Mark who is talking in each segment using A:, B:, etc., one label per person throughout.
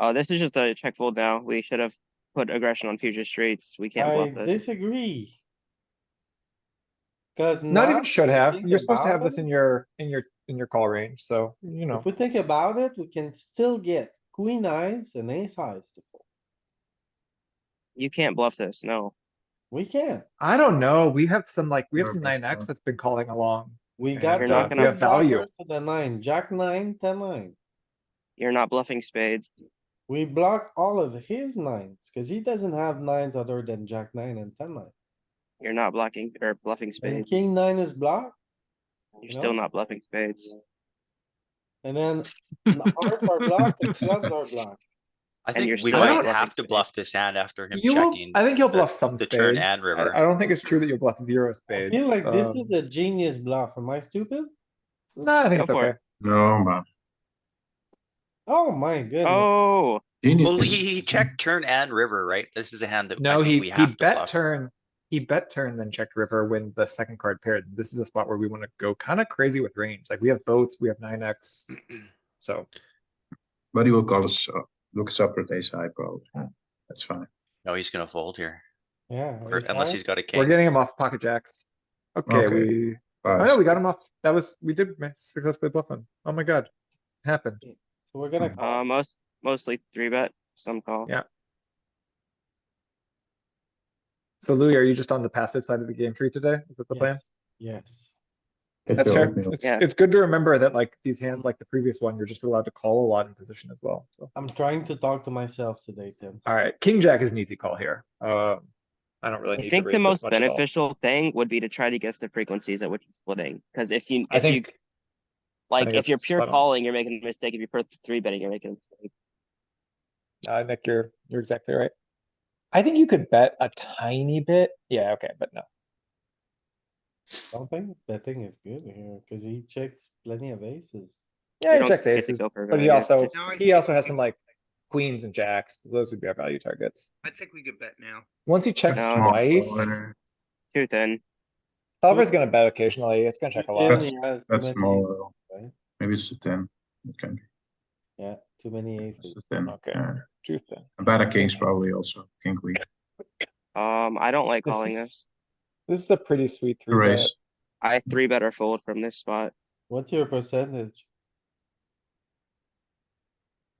A: Uh, this is just a check fold now. We should have put aggression on future streets. We can't
B: I
A: bluff this.
B: disagree. Cuz
C: Not
B: now,
C: even should have.
B: think
C: You're supposed to
B: about
C: have this
B: it.
C: in your, in your, in your call range, so, you know.
B: if we think about it, we can still get queen eyes and ace eyes to fold.
A: You can't bluff this, no.
B: We can.
C: I don't know. We have some like, we have
D: Or
C: some
D: big
C: nine X
D: blind.
C: that's been calling along.
B: We
C: Yeah,
B: got.
A: you're
B: some
A: not gonna-
B: good
C: Value.
B: blockers To the nine, jack nine, ten nine.
A: You're not bluffing spades.
B: We block all of his nines, cuz he doesn't have nines other than jack nine and ten nine.
A: You're not blocking or bluffing
B: And
A: spades.
B: king nine is blocked,
A: You're
B: you
A: still
B: know?
A: not bluffing spades.
B: and then the hearts are blocked, and clubs are blocked.
E: I
A: And you're
E: think we
A: still
E: might
C: bluffing
E: have to
A: spades.
E: bluff this hand after him
C: You will,
E: checking.
C: I think you'll
E: the-
C: bluff some
E: the turn
C: spades.
E: and river.
C: I, I don't think it's true that you'll bluff zero
B: I
C: spades.
B: feel like this
C: Um,
B: is a genius bluff. Am I stupid?
C: No, I think
A: Go
C: it's
A: for it.
C: okay.
D: No, man.
B: Oh my goodness.
A: Oh,
D: Genius.
E: Well, he, he checked turn and river, right? This is a hand that
C: No,
E: I
C: he,
E: think we
C: he
E: have to
C: bet
E: bluff.
C: turn, he bet turn then checked river when the second card paired. This is a spot where we wanna go kinda crazy with range. Like we have boats, we have nine X. So,
D: But he will call us, uh, look us up with ace high probably. Yeah, That's fine.
E: No, he's gonna fold here,
B: Yeah.
E: or
B: ace
E: unless
B: high.
E: he's got a
C: we're
E: king.
C: getting him off pocket jacks. Okay,
D: Okay.
C: we,
D: Five.
C: oh no, we got him off. That was, we did ma- successfully bluff him. Oh my god. Happened.
B: So We're
E: Hmm.
B: gonna call.
A: uh, most, mostly three bet, some call.
C: Yeah. So Louis, are you just on the passive side of the game tree today? Is that the plan?
B: Yes, Yes.
D: Get
C: That's
D: your
C: fair.
D: oatmeal.
C: It's,
A: Yeah.
C: it's good to remember that like these hands, like the previous one, you're just allowed to call a lot in position as well, so.
B: I'm trying to talk to myself today, Tim.
C: Alright, king jack is an easy call here. Um, I don't really
A: I
C: need to
A: think the
C: raise
A: most
C: this much at all.
A: beneficial thing would be to try to guess the frequencies at which he's splitting, cuz if you,
C: I
A: if you,
C: think,
A: like,
C: think
A: if
C: that's
A: you're pure
C: spot on.
A: calling, you're making a mistake. If you're pure three betting, you're making a mistake.
C: uh, Nick, you're, you're exactly right. I think you could bet a tiny bit. Yeah, okay, but no.
B: Don't think betting is good here, cause he checks plenty of aces.
A: You
C: Yeah, he
A: don't
C: checks
A: get to
C: aces,
A: go for
C: but he
A: value.
C: also,
F: Now I
C: he also
F: think-
C: has some like queens and jacks. Those would be our value targets.
F: I think we could bet now.
C: Once he checks
A: No, no.
C: twice.
A: Too thin.
C: Solver's gonna bet occasionally, it's gonna check a
B: And
C: lot.
B: he has
D: That's
B: too many-
D: small. uh,
B: right?
D: Maybe it's a ten. It can be.
B: Yeah, too many
D: It's a
B: aces.
D: ten.
C: Okay.
D: Yeah.
C: Truth then.
D: A better kings probably also. King queen.
A: Um, I don't like
C: This
A: calling
C: is-
A: this.
C: This is a pretty sweet three bet.
D: Raise.
A: I three bet or fold from this spot.
B: What's your percentage?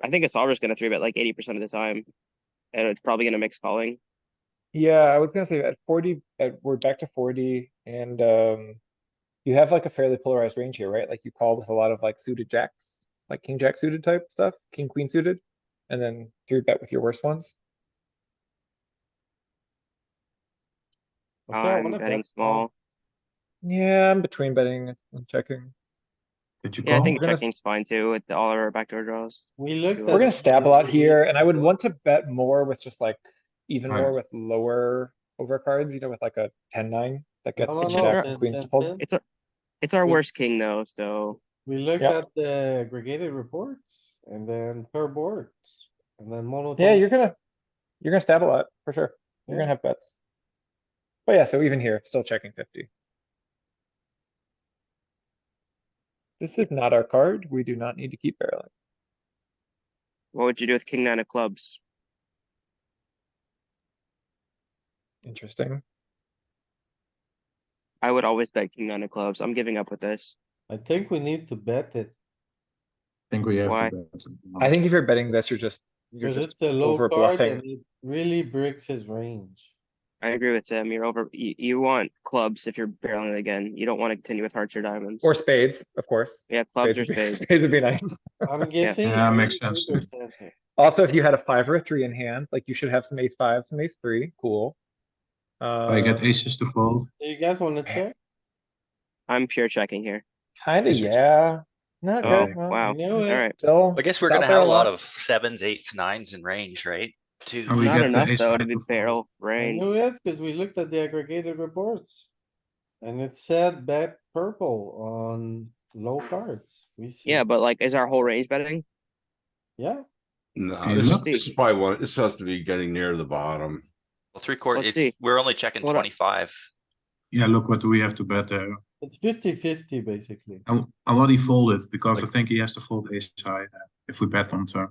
A: I think a solver's gonna three bet like eighty percent of the time. And it's probably gonna mix calling.
C: Yeah, I was gonna say at forty, at, we're back to forty and, um. You have like a fairly polarized range here, right? Like you call with a lot of like suited jacks, like king jack suited type stuff, king queen suited. And then three bet with your worst ones.
B: Okay, I
A: I'm
B: wanna
A: betting
B: bet
A: small.
C: Yeah, I'm between betting and and checking.
D: Did you
A: Yeah, I
D: call?
A: think
C: gonna-
A: checking's fine too with all our backdoor draws.
B: We looked.
A: We're
C: We're
B: at-
C: gonna stab a lot here and I would want to bet more with just like, even
D: Right.
C: more with lower overcards, you know, with like a ten nine that
B: No,
C: gets
B: Oh, no, no,
C: jacks
B: Tim,
C: and queens to
B: Tim,
C: fold.
B: Tim.
A: It's a, it's our
B: We-
A: worst king though, so
B: We looked
C: Yeah.
B: at the aggregated reports and then per board and then mono.
C: Yeah, you're gonna, you're gonna stab a lot, for sure. You're
B: Yeah.
C: gonna have bets. But yeah, so even here, still checking fifty. This is not our card. We do not need to keep barreling.
A: what would you do with king nine of clubs?
C: Interesting.
A: I would always bet king nine of clubs. I'm giving up with this.
B: I think we need to bet it,
D: I think we have
A: Why?
D: to bet.
C: I think if you're betting this, you're just, you're
B: cause
C: just
B: it's a low
C: over
B: card
C: bluffing.
B: and it really breaks his range.
A: I agree with Tim. You're over, you, you want clubs if you're barreling again. You don't want to continue with hearts or diamonds.
C: Or spades, of course.
A: Yeah, clubs or
C: would be-
A: spades.
C: Spades would be nice.
B: I'm guessing.
D: Yeah,
B: it's
D: makes sense.
B: 80% here.
C: Also, if you had a five or a three in hand, like you should have some ace five, some ace three, cool.
D: I get
C: Uh,
D: aces to fold.
B: Do you guys wanna check?
A: I'm pure checking here.
C: kinda,
D: Aces.
C: yeah. Not
A: Oh,
C: good. well,
A: wow.
B: knew
A: All
B: it.
A: right.
C: Still.
E: I guess we're
C: Stop
E: gonna have a
C: there,
E: lot
C: love.
E: of sevens, eights, nines in range, right? Two.
D: Oh, We
A: Not
D: get the
A: enough
D: ace
A: though
D: high
A: to
D: to
A: be
D: fold.
A: barrel
B: I
A: range.
B: knew it because we looked at the aggregated reports. And it said bet purple on low cards. We see.
A: Mm. Yeah, but like, is our whole range betting?
B: Yeah,
D: Hey,
G: No, this is,
D: look.
G: this is probably one, this has to be getting near the bottom.
E: Well, three quarter,
A: Let's see.
E: it's, we're only checking
A: Hold on.
E: twenty-five.
D: Yeah, look what we have to bet there.
B: it's 50-50 basically.
D: And, and what he folded, because I
G: Like-
D: think he has to fold ace high uh, if we bet on turn.